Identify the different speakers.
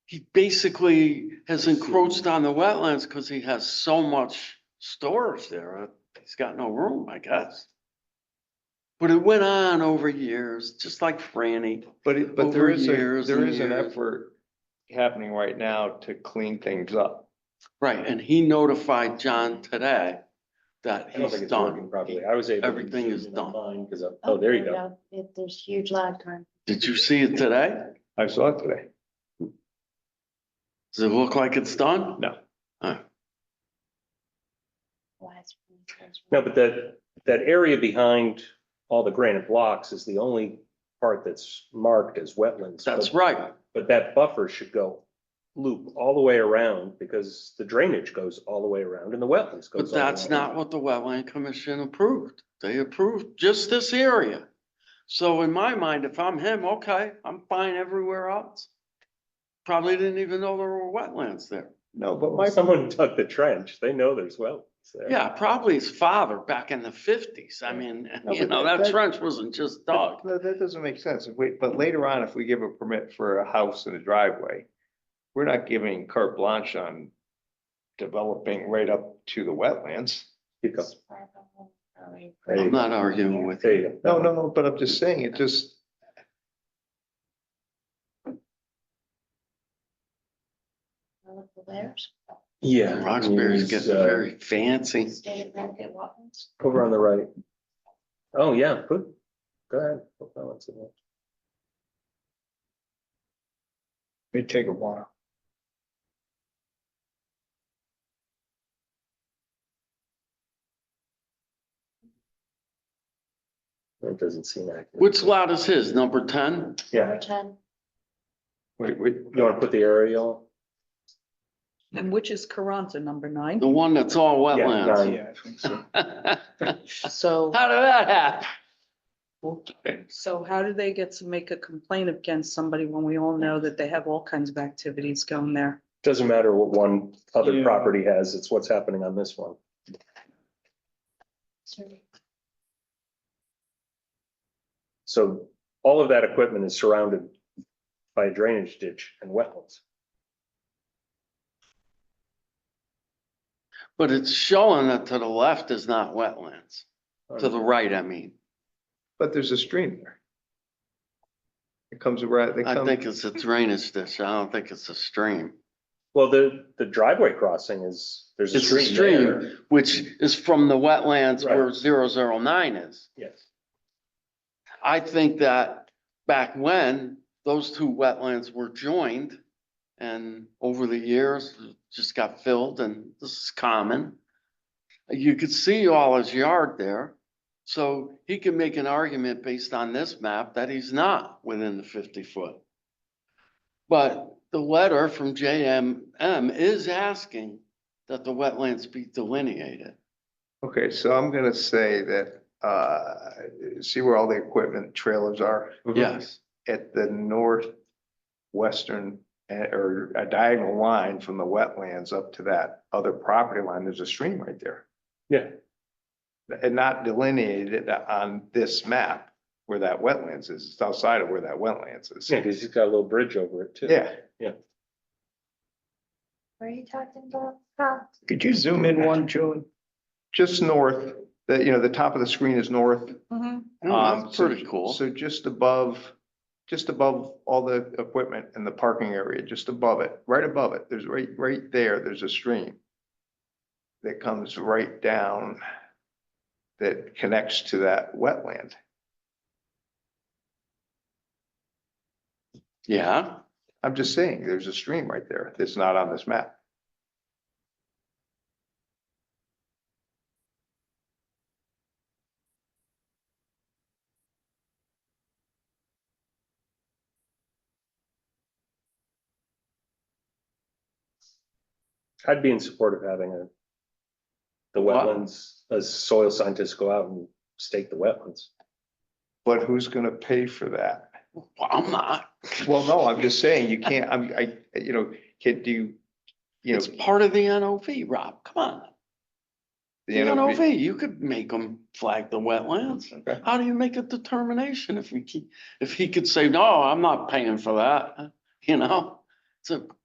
Speaker 1: he basically has encroached on the wetlands because he has so much storage there. uh, He's got no room, I guess. But it went on over years, just like Franny.
Speaker 2: But, it- but there
Speaker 1: Over
Speaker 2: is a,
Speaker 1: years
Speaker 2: there
Speaker 1: and
Speaker 2: is an
Speaker 1: years.
Speaker 2: effort happening right now to clean things up.
Speaker 1: Right, and he notified John today that
Speaker 3: I don't think
Speaker 1: he's
Speaker 3: it's working
Speaker 1: done.
Speaker 3: properly. I was able. to
Speaker 1: Everything
Speaker 3: zoom
Speaker 1: is
Speaker 3: in
Speaker 1: done.
Speaker 3: online 'cause of- oh, there you go.
Speaker 4: If there's huge lag time.
Speaker 1: Did you see it today?
Speaker 2: I saw it today.
Speaker 1: Does it look like it's done?
Speaker 2: No.
Speaker 4: Why it's-
Speaker 3: No, but that, that area behind all the granite blocks is the only part that's marked as wetlands.
Speaker 1: That's
Speaker 3: But-
Speaker 1: right.
Speaker 3: But that buffer should go loop all the way around because the drainage goes all the way around and the wetlands goes. all
Speaker 1: But
Speaker 3: the way
Speaker 1: that's
Speaker 3: around.
Speaker 1: not what the wetland commission approved. They approved just this area. So in my mind, if I'm him, okay, I'm fine everywhere else. Probably didn't even know there were wetlands there.
Speaker 2: No, but
Speaker 3: Why
Speaker 2: my,
Speaker 3: Someone dug the trench. They know there's wetlands there.
Speaker 1: Yeah, probably his father back in the fifties. I mean,
Speaker 2: No,
Speaker 1: you
Speaker 2: but
Speaker 1: know,
Speaker 2: that-
Speaker 1: that
Speaker 2: that-
Speaker 1: trench wasn't just dug.
Speaker 2: no, that doesn't make sense. If we- but later on, if we give a permit for a house and a driveway, we're not giving carte blanche on developing right up to the wetlands.
Speaker 3: You go.
Speaker 4: Right.
Speaker 1: I'm not arguing with
Speaker 3: There
Speaker 1: you.
Speaker 3: you go.
Speaker 2: No, no, no, but I'm just saying, it just.
Speaker 4: There's
Speaker 3: Yeah.
Speaker 1: Roxbury's
Speaker 3: he's,
Speaker 1: getting
Speaker 3: uh,
Speaker 1: very fancy.
Speaker 4: state of Connecticut wetlands.
Speaker 3: Over on the right. Oh, yeah, good. Go ahead. No comments in there.
Speaker 2: It'd take a while.
Speaker 3: That doesn't seem accurate.
Speaker 1: Which lot is his? Number ten?
Speaker 3: Yeah,
Speaker 4: Number ten,
Speaker 2: Wait, wait,
Speaker 3: you wanna put the aerial?
Speaker 5: And which is Carranza, number nine.
Speaker 1: The one that's all
Speaker 3: Yeah,
Speaker 1: wetlands.
Speaker 3: nine.
Speaker 2: yeah, I think so.
Speaker 5: So,
Speaker 1: How did that happen?
Speaker 5: so how do they get to make a complaint against somebody when we all know that they have all kinds of activities going there?
Speaker 3: Doesn't matter what one other
Speaker 2: Yeah.
Speaker 3: property has, it's what's happening on this one.
Speaker 4: sorry.
Speaker 3: So all of that equipment is surrounded by a drainage ditch and wetlands.
Speaker 1: But it's showing that to the left is not wetlands, to the right, I mean.
Speaker 2: But there's a stream there. It comes around, they
Speaker 1: I
Speaker 2: come,
Speaker 1: think it's a drainage ditch. I don't think it's a stream,
Speaker 3: Well, the, the driveway crossing is, there's a
Speaker 1: It's a
Speaker 3: stream
Speaker 1: stream.
Speaker 3: there.
Speaker 1: which is from the wetlands where
Speaker 3: Right.
Speaker 1: zero zero nine is.
Speaker 3: Yes.
Speaker 1: I think that back when those two wetlands were joined and over the years just got filled and this is common. You could see all his yard there. So he can make an argument based on this map that he's not within the fifty foot. But the letter from JMM is asking that the wetlands be delineated.
Speaker 2: okay, so I'm gonna say that, uh, see where all the equipment trailers are?
Speaker 1: Yes,
Speaker 2: At the northwestern, eh, or a diagonal line from the wetlands up to that other property line, there's a stream right there.
Speaker 3: Yeah,
Speaker 2: And not delineated on this map where that wetlands is, it's outside of where that wetlands is.
Speaker 3: yeah, because he's got a little bridge over it too.
Speaker 2: Yeah,
Speaker 4: Were you talking about? Huh?
Speaker 2: could you zoom in one, Julie? Just north, that, you know, the top of the screen is north,
Speaker 1: Oh,
Speaker 2: Um,
Speaker 1: that's
Speaker 2: so-
Speaker 1: pretty cool.
Speaker 2: So just above, just above all the equipment and the parking area, just above it, right above it, there's right, right there, there's a stream that comes right down that connects to that wetland.
Speaker 1: Yeah,
Speaker 2: I'm just saying, there's a stream right there that's not on this map.
Speaker 3: I'd be in support of having a, the
Speaker 1: What?
Speaker 3: wetlands, a soil scientist go out and stake the wetlands.
Speaker 2: But who's gonna pay for that?
Speaker 1: well, I'm not.
Speaker 2: Well, no, I'm just saying, you can't, I'm, I, you know, can do, you- you know.
Speaker 1: It's part of the NOV, Rob, come on. The NOV, you could make them flag the wetlands.
Speaker 2: Okay.
Speaker 1: How do you make a determination if we keep, if he could say, no, I'm not paying for that, you know? It's a